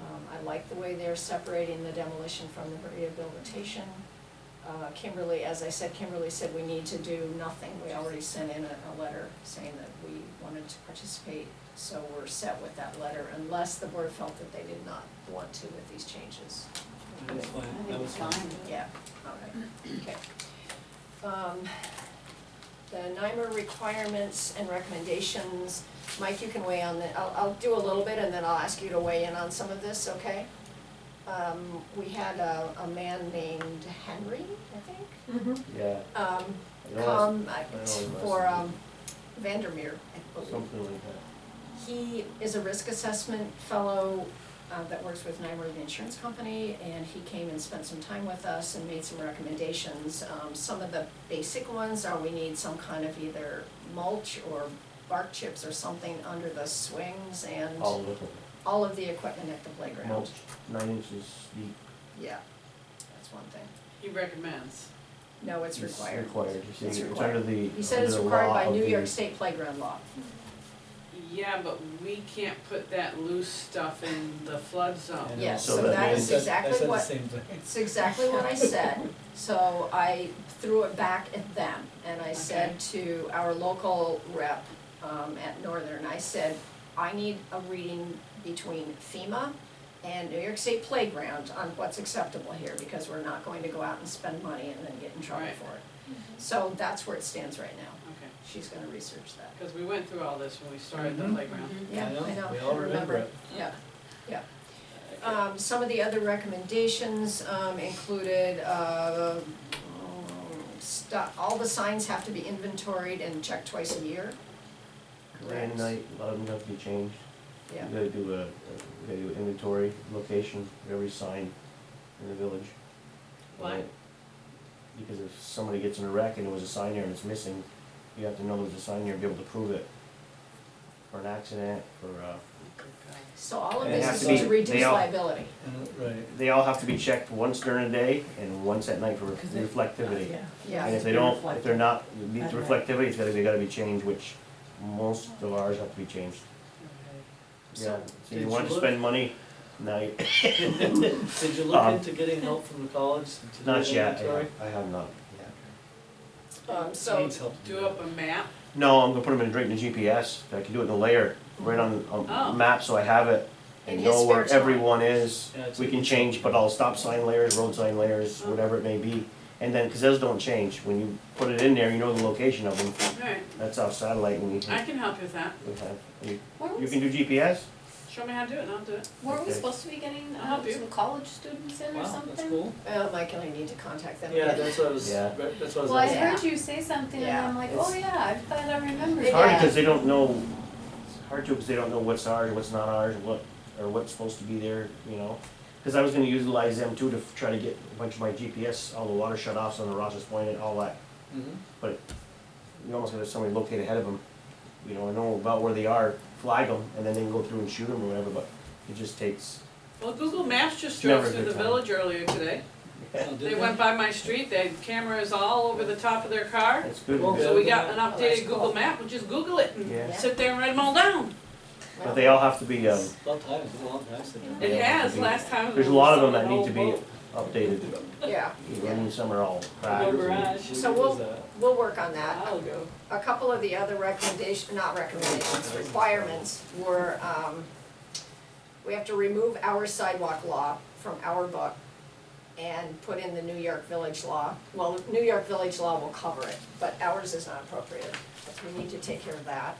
Um, I like the way they're separating the demolition from the rehabilitation. Uh, Kimberly, as I said, Kimberly said we need to do nothing, we already sent in a, a letter saying that we wanted to participate, so we're set with that letter, unless the board felt that they did not want to with these changes. That was fine, I that think was it's fine. fine. Yeah, all right, okay. Um, The NYMER requirements and recommendations, Mike, you can weigh on the, I'll, I'll do a little bit and then I'll ask you to weigh in on some of this, okay? Um, we had a, a man named Henry, I think, Yeah, um, I know last- come uh, know his last for, name. um, Vandermeer, I believe. something like that. He is a risk assessment fellow uh, that works with Nymer, the insurance company, and he came and spent some time with us and made some recommendations. Um, Some of the basic ones are we need some kind of either mulch or bark chips or something under the swings and All little, all of the equipment at the playground. mulch, nine inches deep. Yeah, that's one thing. He recommends. No, it's It's required. Required, you see, It's it's required. under the, He said under it's the required law by of New York the, State playground law. Yeah, but we can't put that loose stuff in the flood I zone. know. Yes, so that I is said- exactly I what- said the same thing. It's exactly what I said, so I threw it back at them, and I said to our local rep, um, at Northern, I said, I need a reading between FEMA and New York State Playground on what's acceptable here, because we're not going to go out and spend money and then get in trouble Right. for it. So that's where it stands right now, Okay, she's gonna research that. because we went through all this when we started the Mhm. playground. Yeah, I know, I We all remember it. Yeah, yeah. Um, some of the other recommendations, um, included, uh, stu- all the signs have to be inventoried and checked twice a year. grand night, a lot of them have to be changed. Yeah, You gotta do a, a- you gotta do an inventory, location, of every sign in the village. Why? And it- Because if somebody gets in a wreck and there was a sign there and it's missing, you have to know there's a sign there and be able to prove it. For an accident, for, uh, so all of They have this to is to be- reduce they all- liability. And, right, they all have to be checked once during the day and once at night for Because it- reflectivity. Yeah. And Yeah, if they don't, if they're not, meet At the night. reflectivity, it's gotta, they gotta be changed, which most of ours have to be changed. Yeah, So- so you Did want you to look- spend money, now you, did you look Um, into getting help from the college to do not the yet, inventory? I have not, yeah. um, so, Needs help to Do up a map, No, I'm gonna put them in, right in the GPS, I can do it in the layer, right on, on Oh. the map, so I have it. In And his know where spare time. everyone is, Yeah, it's- we can change, but all stop sign layers, road sign layers, Oh. whatever it may be. And then, cause those don't change, when you put it in there, you know the location of them, all right, that's off satellite and we, I can help you with that. we have, you, Weren't you we, can do GPS? Show me how to do it and I'll do it. weren't we Okay. supposed to be getting I'll help um, you. some college students in Wow, or that's something? cool. uh, Mike and I need to contact them Yeah, again. that's what I was, Yeah. right, that's what I was Well, I asking. heard you say something and Yeah. I'm like, It's- oh yeah, I thought I remembered It's hard that. because they don't know, it's hard to, because they don't know what's ours, what's not ours, what, or what's supposed to be there, you know? Because I was gonna utilize them too to f- try to get a bunch of my GPS, all the water shut offs on the Ross's Point and all that. Mhm. You almost gotta have somebody locate ahead of them, you know, and know about where they are, flag them, and then they can go through and shoot them or whatever, but it just takes. Well, Google Maps just It's drove never a through the good time. village earlier today. Oh, did They went by my street, they had cameras all over the top of their car. It's good, Well, So because- we got an Oh, that's updated Google cool. map, we'll just Google it and Yeah. sit there and write them all down. but they all have to be, um, About time, it's been a long time since. I've Yeah. It been- has, last time. there's a lot of them we that need sold to the be whole boat. updated, Yeah, I yeah, mean, some are all cracked. Little and- garage. So When we'll- was that? we'll work on that. I'll go. A couple of the other recommendation, not recommendations, requirements were, um, we have to remove our sidewalk law from our book and put in the New York Village law. Well, New York Village law will cover it, but ours is not appropriate. We need to take care of that,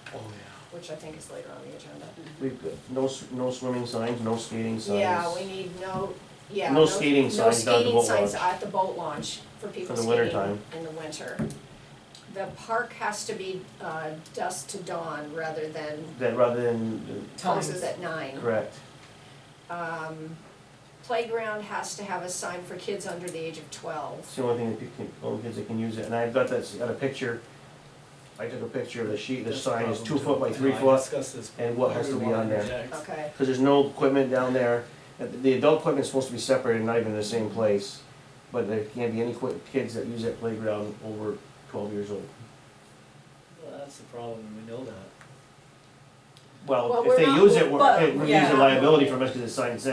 which I think is later on the agenda. We've got no, s- no swimming signs, no skating signs. Yeah, we need no, yeah. No skating signs down at the boat No skating signs launch. at the boat launch for people the skating winter in the winter. time. The park has to be uh, dusk to dawn rather than That rather than, closes at nine. correct, Um, playground has to have a sign for kids under the age of twelve. it's the only thing that people can, only kids that can use it, and I've got this, got a picture. I took a picture of the sheet, the That's sign is problem two too. foot by I three know, I foot, discussed this and what has to be more on there. Jack's. Okay, cause there's no equipment down there. Uh, The adult equipment's supposed to be separated, not even in the same place, but there can't be any qui- kids that use that playground over twelve years old. Well, that's the problem, we know that. Well, Well, if we're they not- use it, we're, but- hey, we're yeah. using liability from us, cause the sign says